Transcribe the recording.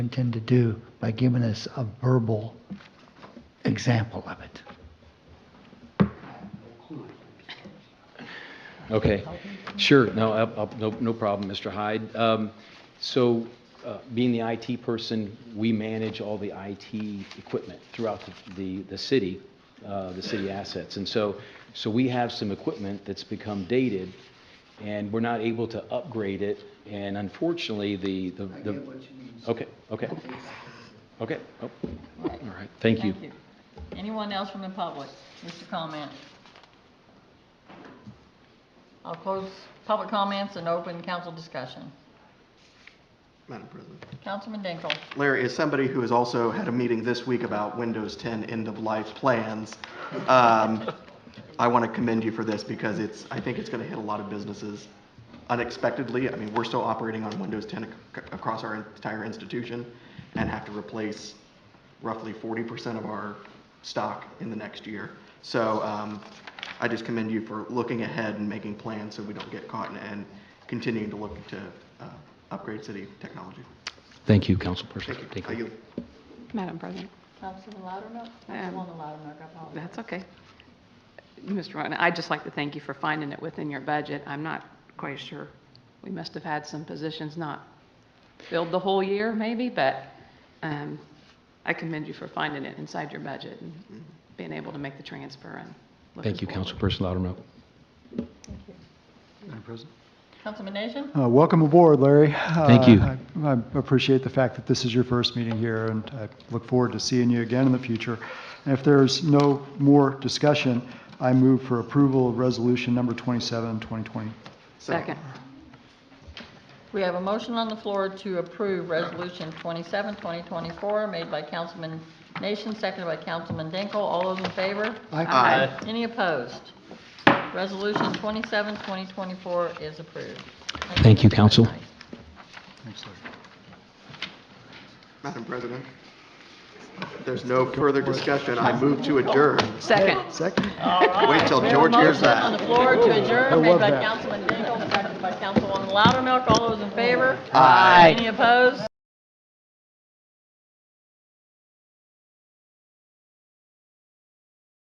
intend to do by giving us a verbal example of it. Okay, sure, no, up- up- no, no problem, Mr. Hyde. Um, So, uh, being the IT person, we manage all the IT equipment throughout the- the, the city, uh, the city assets. And so, so we have some equipment that's become dated, and we're not able to upgrade it, and unfortunately, the, the. the- Okay, okay. Okay, oh, all right, thank you. Thank you. Anyone else from the public wish to comment? I'll close public comments and open council discussion. Madam President. Councilman Dinkle. Larry, as somebody who has also had a meeting this week about Windows 10 end-of-life plans, um, I want to commend you for this because it's, I think it's going to hit a lot of businesses unexpectedly. I mean, we're still operating on Windows 10 ac- across our entire institution and have to replace roughly 40% of our stock in the next year. So um, I just commend you for looking ahead and making plans so we don't get caught and- and continuing to look to uh, upgrade city technology. Thank you, Councilperson. Thank you. Madam President, Councilman Loudermilk? Um, Councilwoman Loudermilk, I apologize. that's okay. Mr. Rowan, I'd just like to thank you for finding it within your budget. I'm not quite sure. We must have had some positions not filled the whole year, maybe, but um, I commend you for finding it inside your budget and being able to make the transfer and looking Mm-hmm. Thank you, forward. Councilperson Loudermilk. Councilman Nation? Uh, Welcome aboard, Larry. Thank Uh, you. I- I appreciate the fact that this is your first meeting here, and I look forward to seeing you again in the future. And if there's no more discussion, I move for approval of Resolution Number 27, 2020. Second. We have a motion on the floor to approve Resolution 27, 2024, made by Councilman Nation, seconded by Councilman Dinkle. All those in favor? Aye. Any opposed? Resolution 27, 2024 is approved. Thank you, council. Thanks, Larry. Madam President, if there's no further discussion, I move to adjourn. Second. Second? Wait till We have a George hears motion On that. the floor to adjourn, made love by that. Councilman Dingle, seconded by Councilwoman Loudermilk. All those in favor? Aye. Any opposed?